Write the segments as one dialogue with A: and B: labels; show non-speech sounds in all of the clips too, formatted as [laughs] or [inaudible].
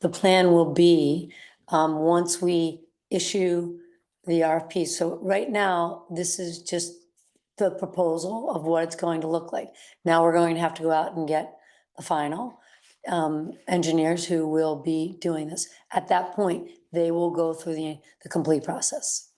A: the plan will be, um, once we issue the RFP. So right now, this is just the proposal of what it's going to look like. Now we're going to have to go out and get the final, um, engineers who will be doing this. At that point, they will go through the, the complete process.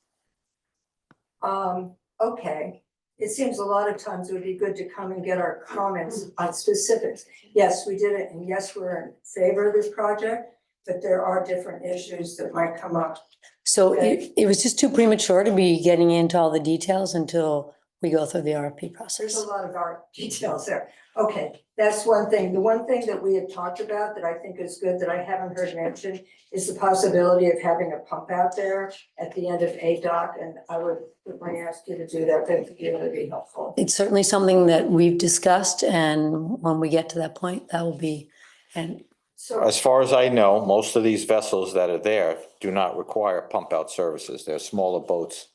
B: Um, okay, it seems a lot of times it would be good to come and get our comments on specifics. Yes, we did it, and yes, we're in favor of this project, but there are different issues that might come up.
A: So it,
B: Okay.
A: it was just too premature to be getting into all the details until we go through the RFP
B: There's
A: process.
B: a lot of our [laughs] details there. Okay, that's one thing. The one thing that we had talked about that I think is good that I haven't heard mentioned is the possibility of having a pump out there at the end of A dock, and I would, would want to ask you to do that, that would be really helpful.
A: It's certainly something that we've discussed and when we get to that point, that will be, and
B: So.
C: As far as I know, most of these vessels that are there do not require pump out services. They're smaller boats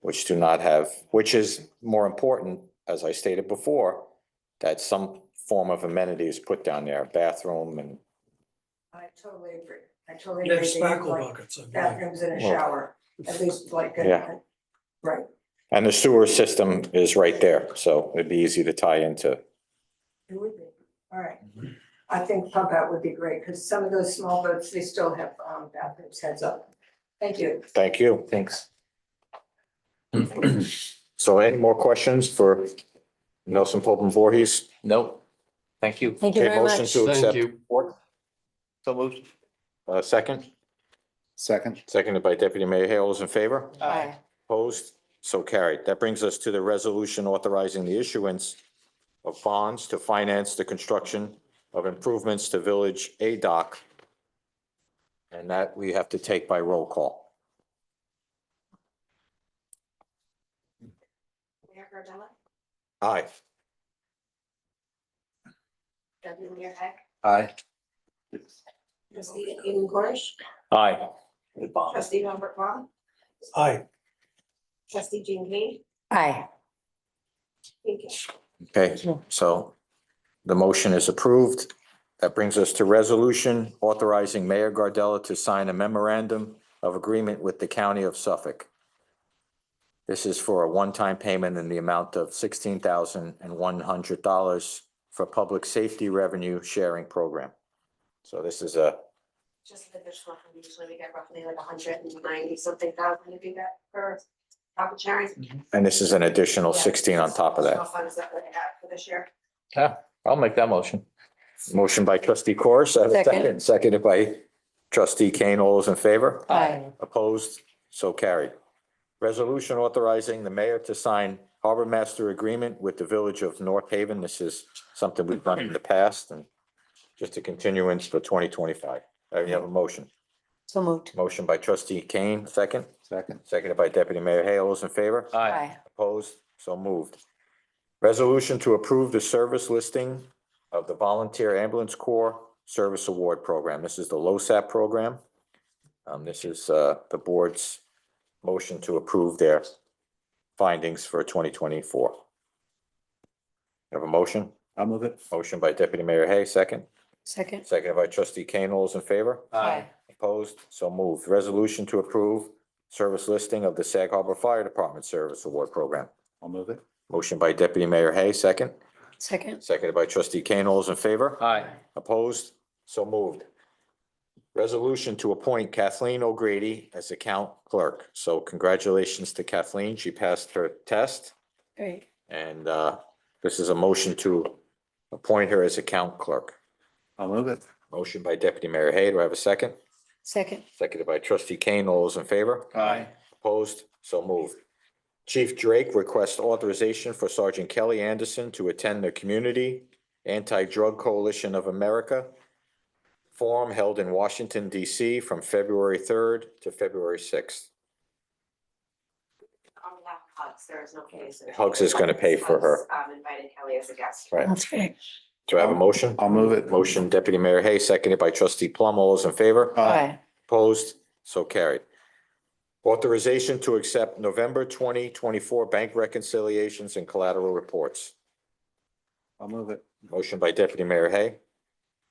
C: which do not have, which is more important, as I stated before, that some form of amenity is put down there, bathroom and
B: I totally agree. I totally
D: They
B: agree.
D: have
B: They have,
D: spackle
B: like,
D: buckets, I believe.
B: Bathrooms and a
C: Well-
B: shower, at least like. a-
C: Yeah.
B: Right,
C: and the sewer system is right there, so it'd be easy to tie into.
B: it would be, all right. I think pump out would be great, because some of those small boats, they still have um, bathrooms heads up. Thank you.
C: Thank you. Thanks. [clears throat] So any more questions for Nelson Pope and Voorhees?
E: No, thank you.
A: thank you
C: Okay,
A: very
C: motion
A: much.
C: to accept. report.
E: So moved.
C: Uh, second,
F: Second.
C: seconded by Deputy Mayor Hale, All those in favor?
E: Aye.
C: Opposed? So carried. That brings us to the resolution authorizing the issuance of bonds to finance the construction of improvements to Village A Dock. And that we have to take by roll call.
G: Mayor Gardella,
C: Aye.
G: Deputy Mayor Heck,
F: Aye.
G: Trustee Eden Corish,
C: Aye.
G: Trustee Robert Vaughn,
D: Aye,
G: Trustee Jean Kane,
A: Aye.
G: thank you.
C: Okay, so the motion is approved. That brings us to resolution authorizing Mayor Gardella to sign a memorandum of agreement with the County of Suffolk. This is for a one-time payment in the amount of sixteen thousand and one hundred dollars for Public Safety Revenue Sharing Program. So this is a,
G: Just an additional, fund. usually we get roughly like hundred and ninety something thousand if you get for profit sharing.
C: and this is an additional
G: Yeah.
C: sixteen on top of
G: Additional
C: that.
G: Funds that we have for this year.
E: I'll make that motion.
C: Motion by trustee Corus, I have a
A: Second.
C: second, seconded by trustee Kane. All those in favor?
A: Aye.
C: Opposed? So carried. Resolution authorizing the mayor to sign harbor master agreement with the village of North Haven. This is something we've done in the past and just a continuance for twenty twenty-five. I have a motion.
A: So moved.
C: Motion by trustee Kane, second,
F: Second.
C: seconded by deputy mayor Hale. All those in favor?
A: Aye.
C: Opposed? So moved. Resolution to approve the service listing of the Volunteer Ambulance Corps Service Award Program. This is the LoSAP program. Um, this is, uh, the board's motion to approve their findings for twenty twenty-four. Have a motion?
F: I'll move it.
C: Motion by Deputy Mayor Hay, second.
A: Second.
C: Seconded by Trustee Kane. All those in favor?
A: Aye.
C: Opposed? So moved. Resolution to approve service listing of the Sag Harbor Fire Department Service Award Program.
F: I'll move it.
C: Motion by Deputy Mayor Hay, second.
A: Second.
C: Seconded by Trustee Kane. All those in favor?
E: Aye.
C: Opposed? So moved. Resolution to appoint Kathleen O'Grady as account clerk. So congratulations to Kathleen. She passed her test.
A: Great.
C: And uh, this is a motion to appoint her as account clerk.
F: I'll move it.
C: Motion by Deputy Mayor Hay. Do I have a second?
A: Second.
C: Seconded by Trustee Kane. All those in favor?
E: Aye.
C: Opposed? So moved. Chief Drake requests authorization for Sergeant Kelly Anderson to attend the Community Anti-Drug Coalition of America forum held in Washington DC from February third to February sixth.
G: On behalf of Hugs, there is no case.
C: Hugs is gonna pay for her.
G: Hugs, Um, invited Kelly as a guest.
C: Right.
A: That's great.
C: Do I have a motion?
F: I'll move it.
C: Motion Deputy Mayor Hay, seconded by Trustee Plum. All those in favor?
A: Aye.
C: Opposed? So carried. Authorization to accept November twenty twenty-four bank reconciliations and collateral reports.
F: I'll move it.
C: Motion by Deputy Mayor Hay.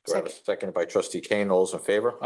C: Do I have a second by trustee Kane? All those in favor?